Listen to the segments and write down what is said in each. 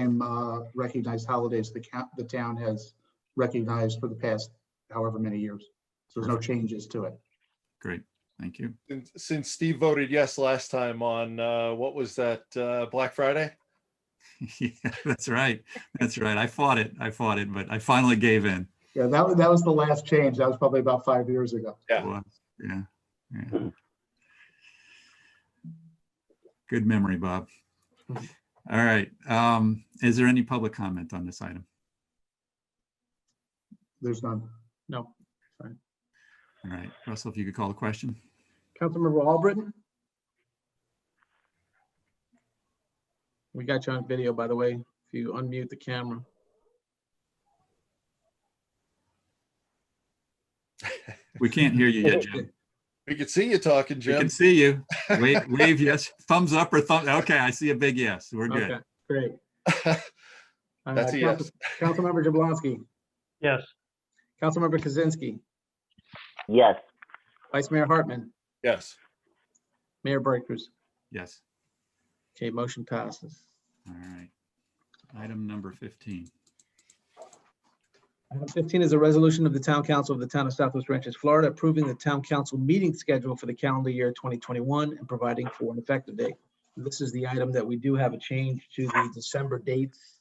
time uh, recognized holidays the count, the town has recognized for the past however many years. So there's no changes to it. Great, thank you. Since- Since Steve voted yes last time on, uh, what was that, uh, Black Friday? Yeah, that's right. That's right. I fought it. I fought it, but I finally gave in. Yeah, that was, that was the last change. That was probably about five years ago. Yeah. was, Yeah, yeah. Good memory, Bob. All right, um, is there any public comment on this item? There's none. No. All right, Russell, if you could call the question? Councilmember Albritton? We got you on video, by the way, if you unmute the camera. We can't hear you yet, Jim. We could see you talking, We Jim. can see you. Wave, wave yes, thumbs up or thumb, okay, I see a big yes. We're Okay, good. Great. Uh, That's a Council- yes. Councilmember Jablonski, yes, Councilmember Kaczynski, yes, Vice Mayor Hartman, Yes. Mayor Brighters. Yes, Okay, motion passes. all right. Item number fifteen. Item 15 is a resolution of the Town Council of the Town of Southwest Ranches, Florida, approving the Town Council meeting schedule for the calendar year 2021 and providing for an effective date. This is the item that we do have a change to the December dates.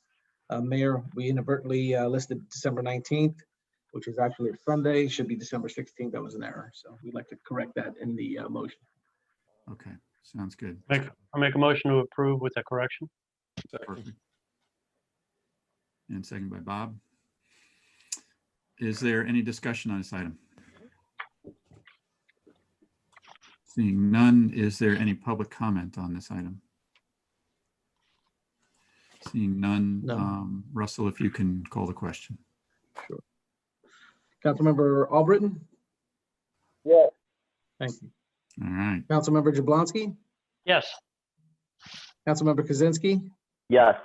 Uh, Mayor, we inadvertently uh, listed December 19th, which is actually a Sunday, should be December 16th. That was an error. So we'd like to correct that in the uh, motion. Okay, sounds good. make, I'll make a motion to approve with a correction, Perfect. And second by Bob. Is there any discussion on this item? Seeing none, is there any public comment on this item? Seeing none, None. um, Russell, if you can call the question. Councilmember Albritton? yes, Thank you. All right, Councilmember Jablonski, yes, Councilmember Kaczynski, yes,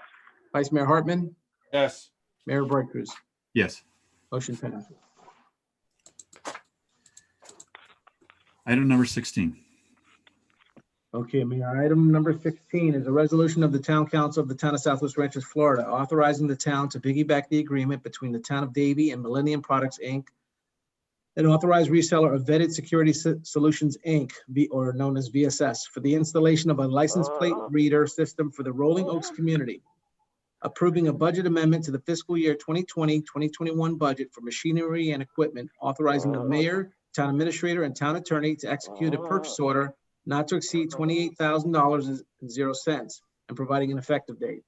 Vice Mayor Hartman, Yes. Mayor Brighters. yes. Motion passes. Item number 16. Okay, Mayor, item number 16 is a resolution of the Town Council of the Town of Southwest Ranches, Florida, authorizing the town to piggyback the agreement between the Town of Davie and Millennium Products, Inc., an authorized reseller of Vetted Security S- Solutions, Inc., V- or known as VSS, for the installation of a license plate reader system for the Rolling Oaks community, approving a budget amendment to the fiscal year 2020, 2021 budget for machinery and equipment, authorizing the mayor, town administrator, and town attorney to execute a purchase order not to exceed twenty-eight thousand dollars and zero cents, and providing an effective date.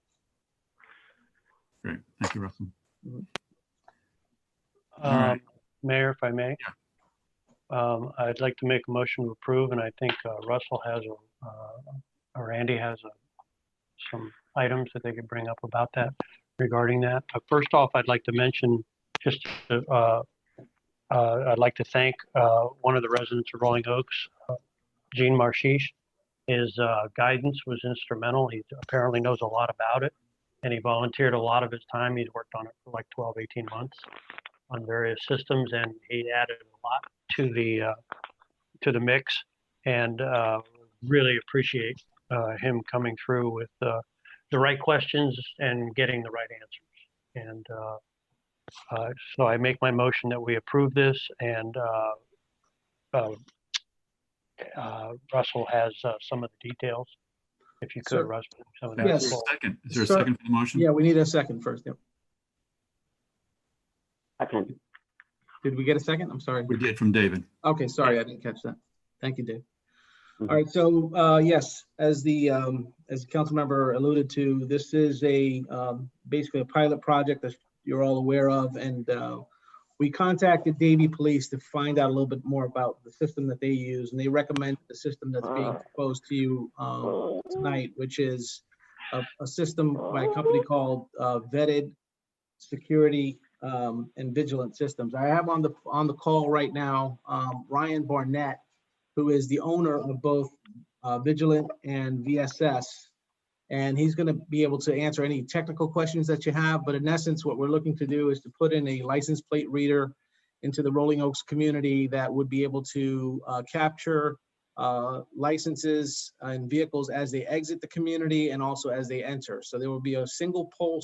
Great, thank you, Russell. All right. um, Mayor, if I may. Um, I'd like to make a motion to approve, and I think uh, Russell has, a, uh, or Andy has a- some items that they could bring up about that regarding that. But first off, I'd like to mention, just, uh, uh, I'd like to thank uh, one of the residents of Rolling Oaks, uh, Gene Marshish. His uh, guidance was instrumental. He apparently knows a lot about it, and he volunteered a lot of his time. He's worked on it for like 12, 18 months on various systems, and he added a lot to the uh, to the mix. And uh, really appreciate uh, him coming through with uh, the right questions and getting the right answers. And uh, uh, so I make my motion that we approve this, and uh, uh, uh, Russell has uh, some of the details. If you Sir. could, Russell, some of that. Yes. full- Second, is there a Sir- second for the motion? Yeah, we need a second first. Yep. second, Did we get a second? I'm sorry. We did from David. Okay, sorry, I didn't catch that. Thank you, Dave. All right, so, uh, yes, as the, um, as the council member alluded to, this is a, um, basically a pilot project that you're all aware of, and, uh, we contacted Davie Police to find out a little bit more about the system that they use, and they recommend the system that's being proposed to you, um, tonight, which is a, a system by a company called uh, Vetted Security um, and Vigilant Systems. I have on the, on the call right now, um, Ryan Barnett, who is the owner of both uh, Vigilant and VSS. And he's going to be able to answer any technical questions that you have, but in essence, what we're looking to do is to put in a license plate reader into the Rolling Oaks community that would be able to uh, capture uh, licenses and vehicles as they exit the community and also as they enter. So there will be a single pole